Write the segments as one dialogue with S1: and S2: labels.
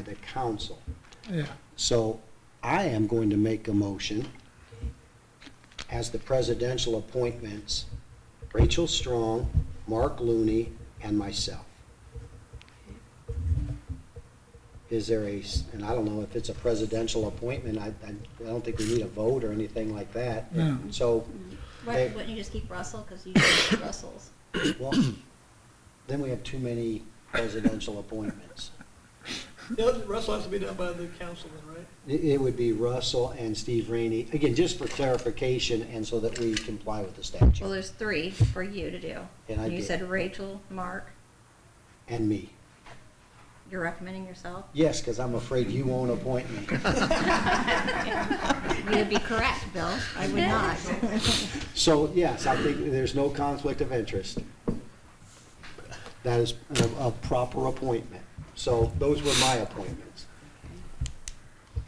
S1: the council.
S2: Yeah,
S1: So I am going to make a motion as the presidential appointments, Rachel Strong, Mark Looney, and myself. Is there a, s- and I don't know if it's a presidential appointment, I, I I don't think we need a vote or anything like that.
S2: No.
S1: So,
S3: Why,
S1: Hey.
S3: wouldn't you just keep Russell, because you just keep Russell's?
S1: well, then we have too many presidential appointments.
S4: Yeah, Russell has to be done by the council then, right?
S1: It, it would be Russell and Steve Rainey, again, just for clarification and so that we comply with the
S3: Well,
S1: statute
S3: there's three for you to do.
S1: And I
S3: You
S1: did.
S3: said Rachel, Mark,
S1: and me.
S3: you're recommending yourself?
S1: Yes, because I'm afraid you won't appoint me.
S3: You would be correct, Bill, I would not.
S1: So, yes, I think there's no conflict of interest. That is a, a proper appointment. So those were my appointments.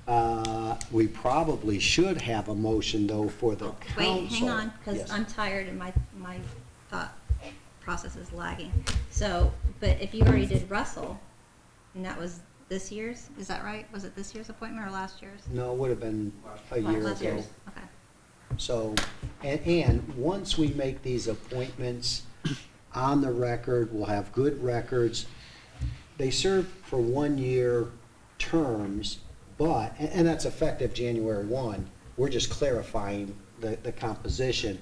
S1: Uh, we probably should have a motion though for the council.
S3: Wait, hang on,
S1: Yes.
S3: because I'm tired and my, my thought process is lagging. So, but if you already did Russell, and that was this year's, is that right? Was it this year's appointment or last year's?
S1: No, it would have been a year
S3: Last
S1: ago.
S3: year's, okay.
S1: So, and, and once we make these appointments on the record, we'll have good records. They serve for one-year terms, but, and, and that's effective January one. We're just clarifying the, the composition.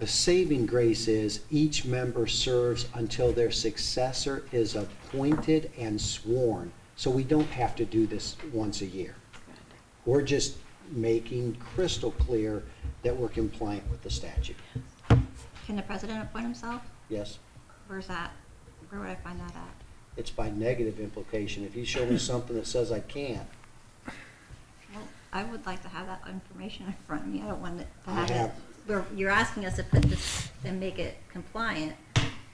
S1: The saving grace is each member serves until their successor is appointed and sworn. So we don't have to do this once a year. We're just making crystal clear that we're compliant with the statute.
S3: Can the president appoint himself?
S1: Yes?
S3: Where's that? Where would I find that at?
S1: It's by negative implication. If you show me something that says I can't,
S3: Well, I would like to have that information in front of me. I don't want it to
S1: I
S3: have it.
S1: have-
S3: We're, you're asking us to put this and make it compliant.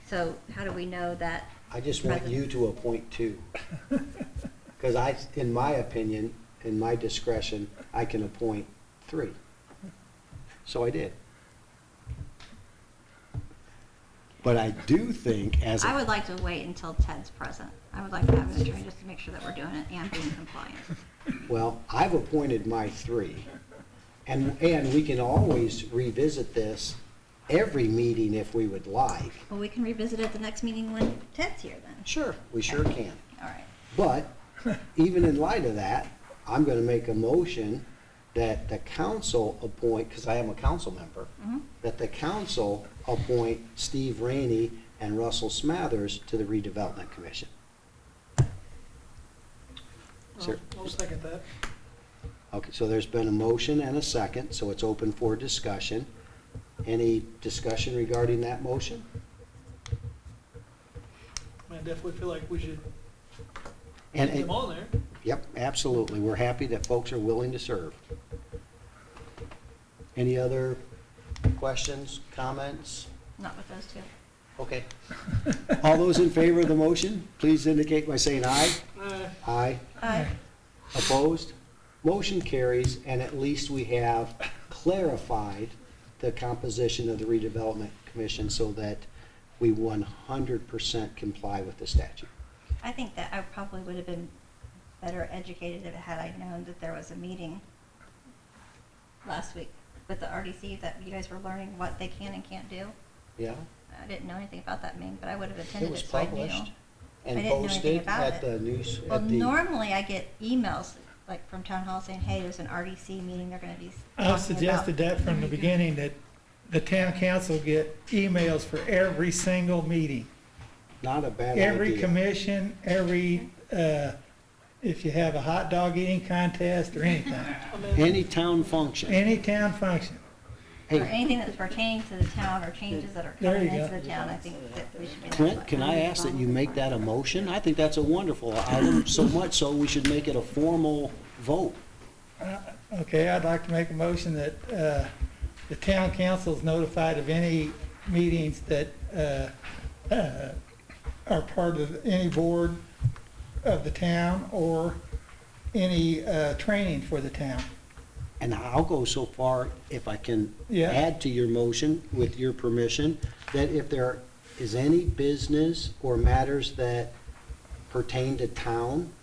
S3: So how do we know that?
S1: I just want you to appoint two. Because I, in my opinion, in my discretion, I can appoint three. So I did. But I do think as. a-
S3: I would like to wait until Ted's present. I would like to have an attorney just to make sure that we're doing it and being compliant.
S1: Well, I've appointed my three. And, and we can always revisit this every meeting if we would like.
S3: Well, we can revisit it the next meeting when Ted's here then.
S1: Sure. We sure can.
S3: All right.
S1: But even in light of that, I'm going to make a motion that the council appoint, because I am a council member,
S3: Mhm.
S1: that the council appoint Steve Rainey and Russell Smathers to the redevelopment commission. Sure.
S4: I'll second that.
S1: Okay, so there's been a motion and a second, so it's open for discussion. Any discussion regarding that motion?
S4: I mean, I definitely feel like we should
S1: And,
S4: put them
S1: and-
S4: on there.
S1: yep, absolutely. We're happy that folks are willing to serve. Any other questions, comments?
S3: Not with those two.
S1: Okay. All those in favor of the motion, please indicate by saying aye.
S4: Uh,
S1: Aye.
S3: Aye.
S1: Opposed? Motion carries, and at least we have clarified the composition of the redevelopment commission so that we one hundred percent comply with the statute.
S3: I think that I probably would have been better educated if had I known that there was a meeting last week with the RDC that you guys were learning what they can and can't do.
S1: Yeah?
S3: I didn't know anything about that meeting, but I would have
S1: It
S3: attended
S1: was
S3: it, so I knew.
S1: published and
S3: I didn't know anything
S1: posted
S3: about
S1: at
S3: it.
S1: the news,
S3: Well,
S1: at the,
S3: normally I get emails like from town hall saying, hey, there's an RDC meeting, they're gonna be s-
S2: I
S3: talking about.
S2: suggested that from Oh, the beginning, that the town council get emails for every single meeting.
S1: not a bad
S2: Every
S1: idea.
S2: commission, every, uh, if you have a hot dog eating contest or anything,
S4: I mean,
S1: Any town function.
S2: any town function.
S3: Or
S1: Hey,
S3: anything that's pertaining to the town or changes that are
S2: There
S3: coming
S2: you go.
S3: into the town, I think that we should be.
S1: Clint, can I ask that you make that a motion? I think that's a wonderful item, so much so we should make it a formal vote.
S2: Uh, Okay, I'd like to make a motion that uh, the town council is notified of any meetings that uh, uh, are part of any board of the town or any uh, training for the town.
S1: And I'll go so far, if I can
S2: Yeah.
S1: add to your motion, with your permission, that if there is any business or matters that pertain to town,